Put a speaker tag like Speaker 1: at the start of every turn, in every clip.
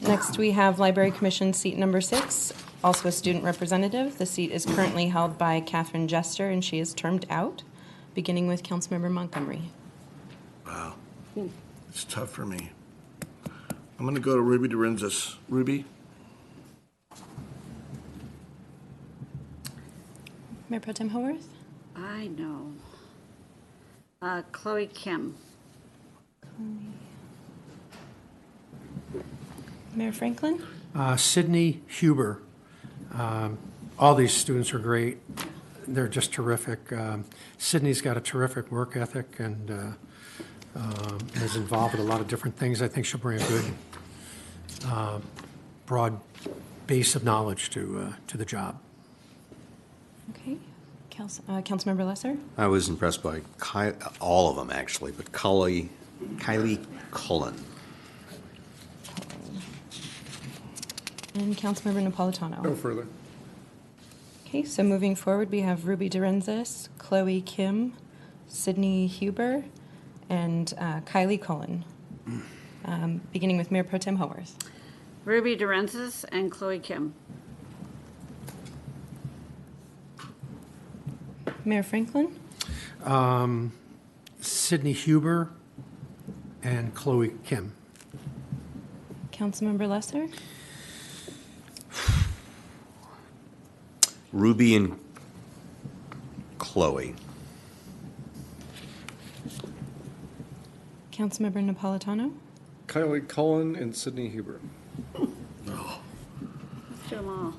Speaker 1: Next, we have Library Commission seat number six, also a student representative. The seat is currently held by Catherine Jester, and she is termed out, beginning with Councilmember Montgomery.
Speaker 2: It's tough for me. I'm going to go to Ruby Durensis. Ruby?
Speaker 1: Mayor Pro Tem Haworth?
Speaker 3: I know. Uh, Chloe Kim,
Speaker 1: Mayor Franklin?
Speaker 4: Uh, Sydney Huber. Um, All these students are great. They're just terrific. Um, Sydney's got a terrific work ethic and uh, um, is involved with a lot of different things. I think she'll bring a good, uh, broad base of knowledge to, uh, to the job.
Speaker 1: Okay. Council, uh, Councilmember Lesser?
Speaker 5: I was impressed by Ky- all of them, actually, but Kylie, Kylie Cullen.
Speaker 1: And Councilmember Napolitano?
Speaker 2: further.
Speaker 1: Okay, so moving forward, we have Ruby Durensis, Chloe Kim, Sydney Huber, and uh, Kylie Cullen, Um, beginning with Mayor Pro Tem Haworth.
Speaker 3: Ruby Durensis, and Chloe Kim.
Speaker 1: Mayor Franklin?
Speaker 4: Sydney Huber and Chloe Kim.
Speaker 1: Councilmember Lesser?
Speaker 5: Ruby and Chloe.
Speaker 1: Councilmember Napolitano?
Speaker 6: Kylie Cullen and Sydney Huber.
Speaker 3: Let's do them all.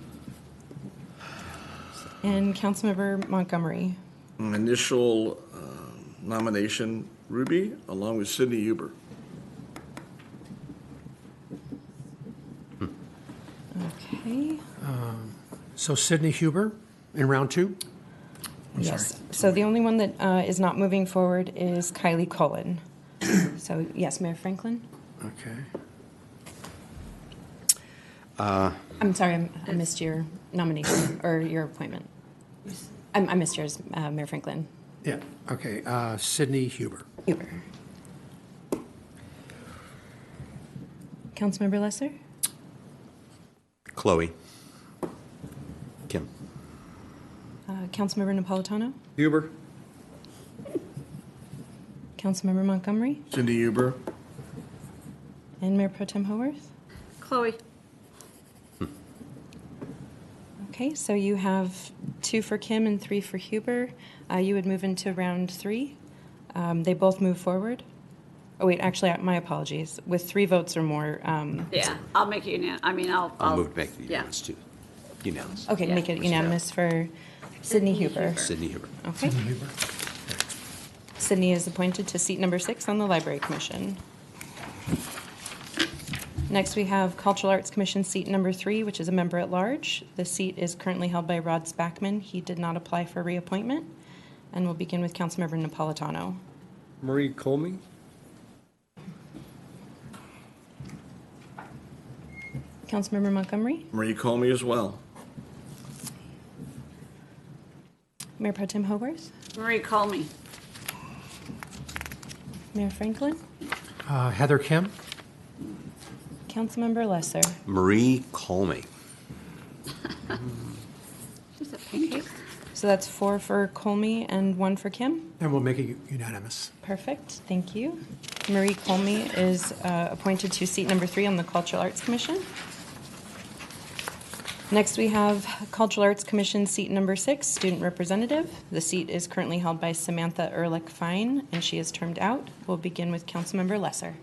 Speaker 1: And Councilmember Montgomery?
Speaker 2: Initial um, nomination, Ruby, along with Sydney Huber.
Speaker 1: Okay.
Speaker 4: So Sydney Huber in round two?
Speaker 1: Yes. So the only one that uh, is not moving forward is Kylie Cullen. So, yes, Mayor Franklin?
Speaker 4: Okay.
Speaker 1: I'm sorry, I'm- I missed your nomination or your appointment. I I missed yours, uh, Mayor Franklin.
Speaker 4: Yeah, okay, uh, Sydney Huber.
Speaker 1: Huber. Councilmember Lesser?
Speaker 5: Chloe. Kim.
Speaker 1: Uh, Councilmember Napolitano?
Speaker 6: Huber,
Speaker 1: Councilmember Montgomery?
Speaker 2: Sydney Huber.
Speaker 1: And Mayor Pro Tem Haworth?
Speaker 3: Chloe,
Speaker 1: Okay, so you have two for Kim and three for Huber. Uh, you would move into round three. Um, they both move forward. Oh, wait, actually, uh, my apologies. With three votes or more, um,
Speaker 3: yeah, I'll make you, unan- I mean, I'll.
Speaker 5: I'll move to make the
Speaker 3: Oh, yeah.
Speaker 5: unanimous, too. Unanimous.
Speaker 1: okay, make it unanimous for Sydney Huber.
Speaker 5: Sydney Huber.
Speaker 1: Okay. Sydney is appointed to seat number six on the Library Commission. Next, we have Cultural Arts Commission seat number three, which is a member at large. The seat is currently held by Rod Spackman. He did not apply for reappointment. And we'll begin with Councilmember Napolitano.
Speaker 6: Marie Colmy,
Speaker 1: Councilmember Montgomery,
Speaker 2: Marie Colmy as well.
Speaker 1: Mayor Pro Tem Hogarth,
Speaker 3: Marie Colmy,
Speaker 1: Mayor Franklin,
Speaker 4: Uh, Heather Kim?
Speaker 1: Councilmember Lesser.
Speaker 5: Marie Colmy.
Speaker 3: she's a painter.
Speaker 1: So that's four for Colmy and one for Kim.
Speaker 4: And we'll make it unanimous.
Speaker 1: Perfect, thank you. Marie Colmy is uh, appointed to seat number three on the Cultural Arts Commission. Next, we have Cultural Arts Commission seat number six, student representative. The seat is currently held by Samantha Ehrlich Fine, and she is termed out. We'll begin with Councilmember Lesser.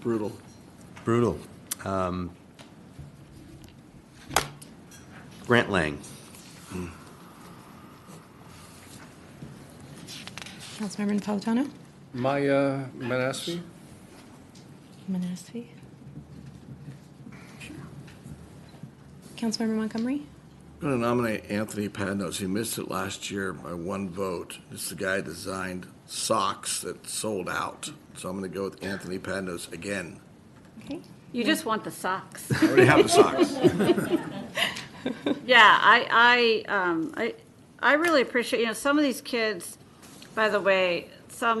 Speaker 2: Brutal.
Speaker 5: Brutal. Um, Grant Lang.
Speaker 1: Councilmember Napolitano?
Speaker 6: Maya Manasvi,
Speaker 1: Manasfi. Councilmember Montgomery?
Speaker 2: I'm going to nominate Anthony Padnos. He missed it last year by one vote. It's the guy that designed socks that sold out. So I'm going to go with Anthony Padnos again.
Speaker 1: Okay.
Speaker 3: You just want the socks.
Speaker 2: I already have the socks.
Speaker 3: Yeah, I, I, um, I, I really appreciate, you know, some of these kids, by the way, some